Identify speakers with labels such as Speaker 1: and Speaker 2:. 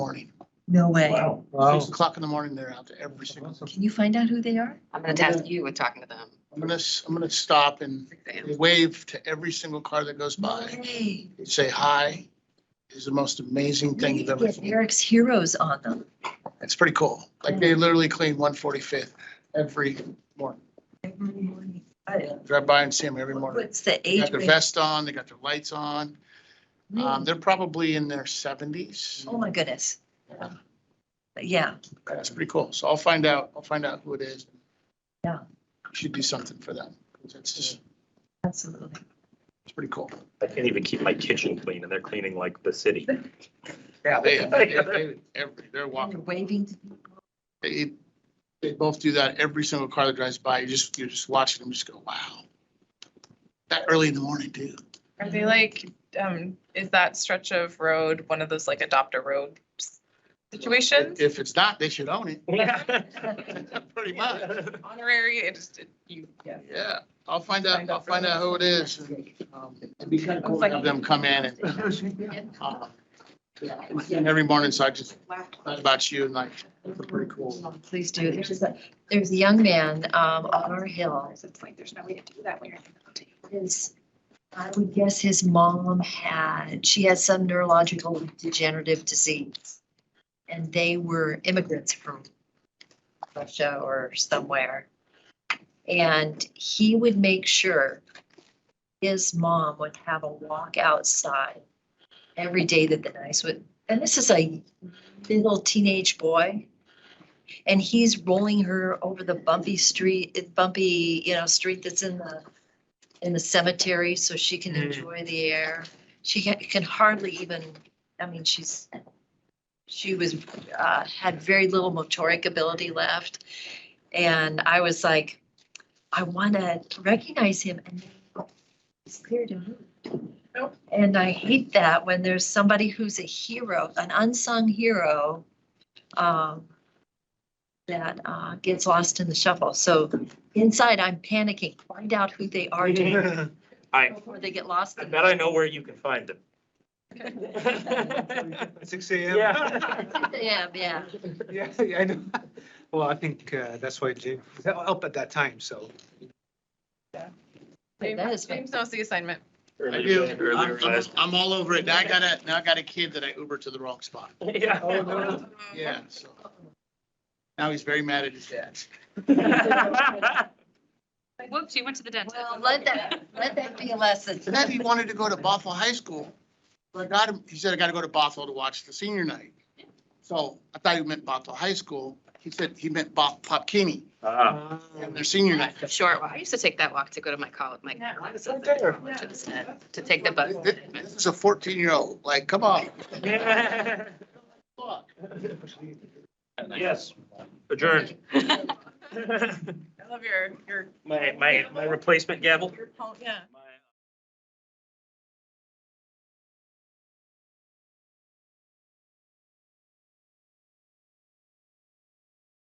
Speaker 1: No way.
Speaker 2: Wow.
Speaker 3: Six o'clock in the morning, they're out there every single.
Speaker 1: Can you find out who they are?
Speaker 4: I'm gonna task you with talking to them.
Speaker 3: I'm gonna, s- I'm gonna stop and
Speaker 4: Six a.m.
Speaker 3: wave to every single car that goes by,
Speaker 1: Hey,
Speaker 3: say hi. Is the most amazing thing
Speaker 1: we
Speaker 3: you've
Speaker 1: could
Speaker 3: ever
Speaker 1: get
Speaker 3: seen.
Speaker 1: Eric's heroes on them.
Speaker 3: It's pretty cool. Like they literally clean one forty-fifth every morning.
Speaker 1: I-
Speaker 3: Drive by and see them every morning.
Speaker 1: What's the
Speaker 3: They
Speaker 1: age?
Speaker 3: got their
Speaker 1: range?
Speaker 3: vest on, they got their lights on. Um, they're probably in their seventies.
Speaker 1: Oh, my goodness. Yeah,
Speaker 3: That's pretty cool. So I'll find out, I'll find out who it is.
Speaker 1: Yeah.
Speaker 3: Should do something for them. It's just,
Speaker 1: absolutely.
Speaker 3: it's pretty cool.
Speaker 2: I can't even keep my kitchen clean and they're cleaning like the city.
Speaker 3: Yeah, they, they, they- every- they're
Speaker 1: And
Speaker 3: walking.
Speaker 1: You're waving to people.
Speaker 3: They, they both do that every single car that drives by. You just, you're just watching them just go, wow. That early in the morning, dude.
Speaker 5: Are they like, um, is that stretch of road one of those like adopt a road s- situations?
Speaker 3: If it's not, they should own it. Pretty much.
Speaker 5: Honorary, it just, it- you,
Speaker 3: Yeah, I'll find out, I'll find out who it is. and, um, It'd be kind of cool to have them come in and. uh, yeah, And every morning, so I just thought about you and like, it's pretty cool.
Speaker 1: Oh, Please do. There's just a, there's a young man, um, on our hill.
Speaker 6: It's like, there's no way to do that when you're.
Speaker 1: His, I would guess his mom had, she had some neurological degenerative disease. And they were immigrants from Russia or somewhere. And he would make sure his mom would have a walk outside every day that the nice would, and this is a little teenage boy. And he's rolling her over the bumpy street, bumpy, you know, street that's in the, in the cemetery so she can
Speaker 2: Mm.
Speaker 1: enjoy the air. She ca- can hardly even, I mean, she's, she was, uh, had very little motoric ability left. And I was like, I want to recognize him and it's clear to me.
Speaker 5: Nope.
Speaker 1: And I hate that when there's somebody who's a hero, an unsung hero, um, that, uh, gets lost in the shuffle. So inside, I'm panicking. Find out who they are to-
Speaker 2: I,
Speaker 1: before they get lost.
Speaker 2: I
Speaker 1: in
Speaker 2: bet I know where you can find them.
Speaker 7: Six AM?
Speaker 2: Yeah.
Speaker 1: Yeah, yeah.
Speaker 7: Yeah, I know. Well, I think uh, that's why Jim, was up at that time, so.
Speaker 1: That
Speaker 5: James
Speaker 1: is
Speaker 5: James knows the assignment.
Speaker 3: I do. I'm- I'm, I'm all over it. Now I got a, now I got a kid that I Ubered to the wrong spot.
Speaker 7: Oh,
Speaker 2: Yeah.
Speaker 5: Um,
Speaker 7: no.
Speaker 3: Yeah, so. Now he's very mad at his dad.
Speaker 4: Whoops, you went to the dentist.
Speaker 1: Well, let that, let that be a lesson.
Speaker 3: Then he wanted to go to Bothell High School. But I got him, he said, I gotta go to Bothell to watch the senior night. So I thought he meant Bothell High School. He said he meant Bob, Popkini
Speaker 2: Ah.
Speaker 3: and their senior night.
Speaker 4: Short walk. I used to take that walk to go to my college, my. I was at the college instead, To take the bus.
Speaker 3: This this is a fourteen-year-old, like, come on. Fuck.
Speaker 2: Yes, adjourned.
Speaker 5: I love your, your,
Speaker 2: My, my, my replacement gavel.
Speaker 5: your, pon- yeah.